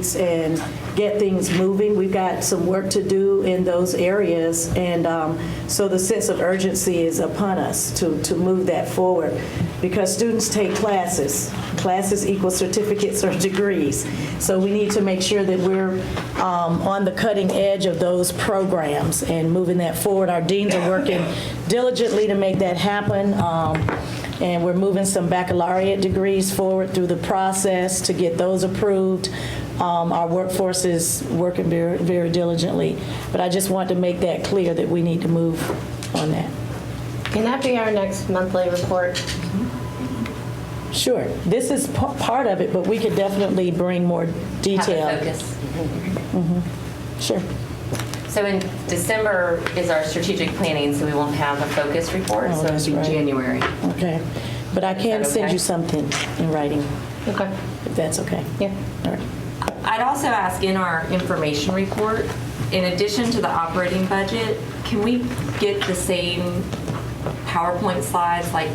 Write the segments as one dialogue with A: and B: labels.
A: streets and get things moving. We've got some work to do in those areas, and um, so the sense of urgency is upon us to, to move that forward, because students take classes. Classes equal certificates or degrees, so we need to make sure that we're um, on the cutting edge of those programs and moving that forward. Our deans are working diligently to make that happen. Um, and we're moving some baccalaureate degrees forward through the process to get those approved. Um, Our workforce is working very very diligently, but I just want to make that clear that we need to move on that.
B: Can that be our next monthly report?
A: Sure, this is pa- part of it, but we could definitely bring more detail.
C: focus.
A: Sure,
C: So in December is our strategic planning, so we won't have a focus report,
B: Oh,
C: so
A: that's
C: it'll
A: right.
C: be January.
A: okay. But I can
C: that
A: send
C: okay?
A: you something in writing,
B: Okay,
A: if that's okay.
B: yeah.
A: All right.
C: I'd also ask in our information report, in addition to the operating budget, can we get the same PowerPoint slides like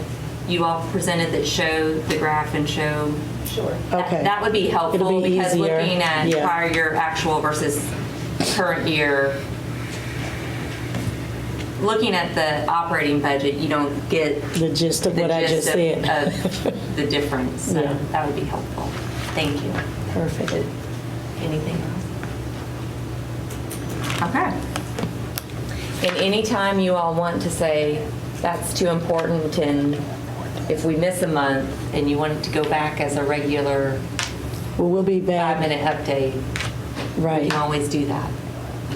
C: you all presented that show the graph and show? Sure.
A: Okay.
C: That would be
A: It'll
C: helpful
A: be
C: because
A: easier,
C: looking at
A: yeah.
C: prior year actual versus current year, looking at the operating budget, you don't get
A: The gist of
C: the
A: what I
C: gist
A: just
C: of- uh,
A: said.
C: of The difference, so
A: Yeah.
C: that would be helpful. Thank you.
A: Perfect.
C: Anything else? Okay. And anytime you all want to say, that's too important, and if we miss a month, and you want it to go back as a regular
A: Well, we'll be back,
C: five-minute update, you
A: right.
C: can always do that.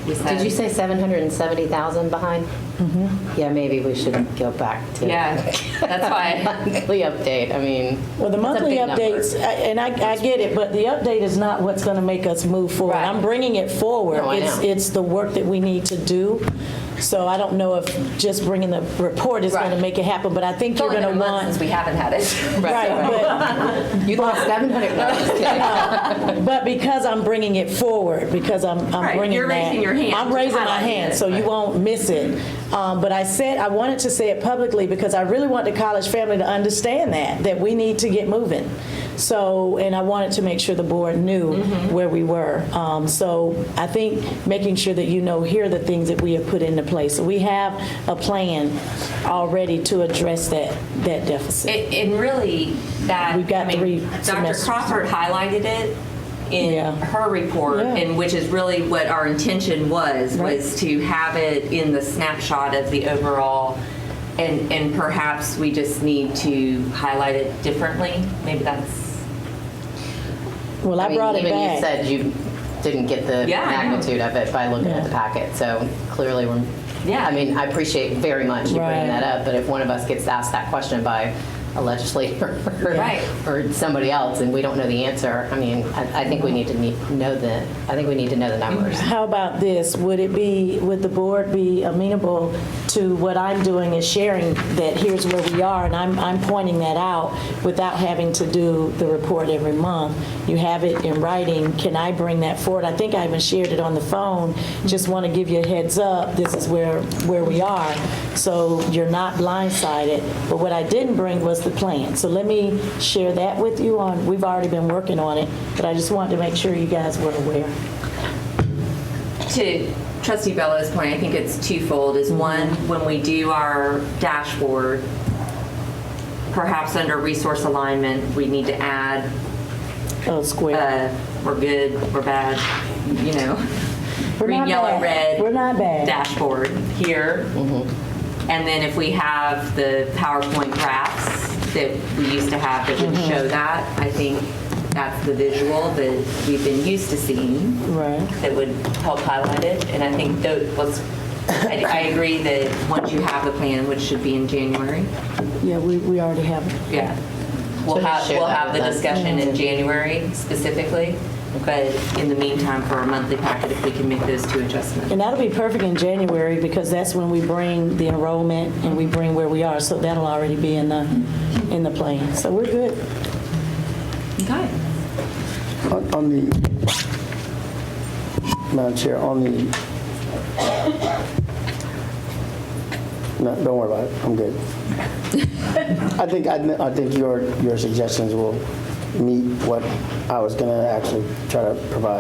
C: We said-
B: Did you say 770,000 behind? Mm-hmm. Yeah, maybe we should go back to.
C: Yeah, that's why.
B: Monthly update, I mean.
A: Well, the
B: that's a
A: monthly
B: big number.
A: updates, I- and I, I get it, but the update is not what's going to make us move forward.
C: Right.
A: I'm bringing it forward.
B: No, I
A: It's,
B: know.
A: it's the work that we need to do. So I don't know if just bringing the report is going to
C: Right.
A: make it happen, but I think
C: It's
A: you're
C: only
A: going
C: been a
A: to
C: month
A: want.
C: since we haven't had it.
A: Right,
B: You lost 700, no, I'm just
A: but,
B: kidding.
A: but because I'm bringing it forward, because I'm, I'm
C: Right,
A: bringing that.
C: you're raising your hand.
A: I'm raising my
C: Highlighting
A: hand,
C: it.
A: so you won't miss it. Um, But I said, I wanted to say it publicly because I really want the college family to understand that, that we need to get moving. So, and I wanted to make sure the board knew
C: Mm-hmm.
A: where we were. Um, So I think making sure that you know, here are the things that we have put into place. So we have a plan already to address that, that deficit.
C: It- And really, that,
A: We've got
C: I mean,
A: three
C: Dr.
A: semesters.
C: Crawford highlighted it
A: Yeah.
C: in her report,
A: Yeah.
C: and which is really what our intention was,
A: Right.
C: was to have it in the snapshot of the overall, and, and perhaps we just need to highlight it differently. Maybe that's,
A: Well, I
B: mean,
A: brought it back.
B: Even you said you didn't get the
C: Yeah, I know.
B: magnitude of it by looking
A: Yeah.
B: at the packet, so clearly we're.
C: Yeah.
B: I mean, I appreciate very much you
A: Right.
B: bringing that up, but if one of us gets asked that question by a legislator or-
C: Right.
B: or somebody else and we don't know the answer, I mean, I, I think we need to need, know the, I think we need to know the numbers.
A: How about this? Would it be, would the board be amenable to what I'm doing is sharing that here's where we are, and I'm, I'm pointing that out without having to do the report every month? You have it in writing. Can I bring that forward? I think I even shared it on the phone. Just want to give you a heads up, this is where, where we are, so you're not blindsided. But what I didn't bring was the plan. So let me share that with you on, we've already been working on it, but I just wanted to make sure you guys were aware.
C: to trustee Bella's point, I think it's twofold,
A: Mm-hmm.
C: is one, when we do our dashboard, perhaps under resource alignment, we need to add
A: Oh, square.
C: uh, we're good, we're bad, you know,
A: We're
C: green,
A: not
C: yellow,
A: bad. We're
C: red
A: not bad. Mm-hmm.
C: dashboard here. And then if we have the PowerPoint graphs that we used to have that would
A: Mm-hmm.
C: show that, I think that's the visual that we've been used to seeing
A: Right.
C: that would help highlight it. And I think that was, I I agree that once you have the plan, which should be in January,
A: Yeah, we, we already have.
C: yeah. We'll
B: So
C: have,
B: just share
C: we'll
B: that
C: have the
B: with us.
C: discussion in January specifically, but in the meantime, for our monthly packet, if we can make those two adjustments.
A: And that'll be perfect in January because that's when we bring the enrollment and we bring where we are. So that'll already be in the, in the plan. So we're good.
C: Okay.
D: On on the, Madam Chair, on the, no, don't worry about it, I'm good. I think, I kn- I think your, your suggestions will meet what I was going to actually try to provide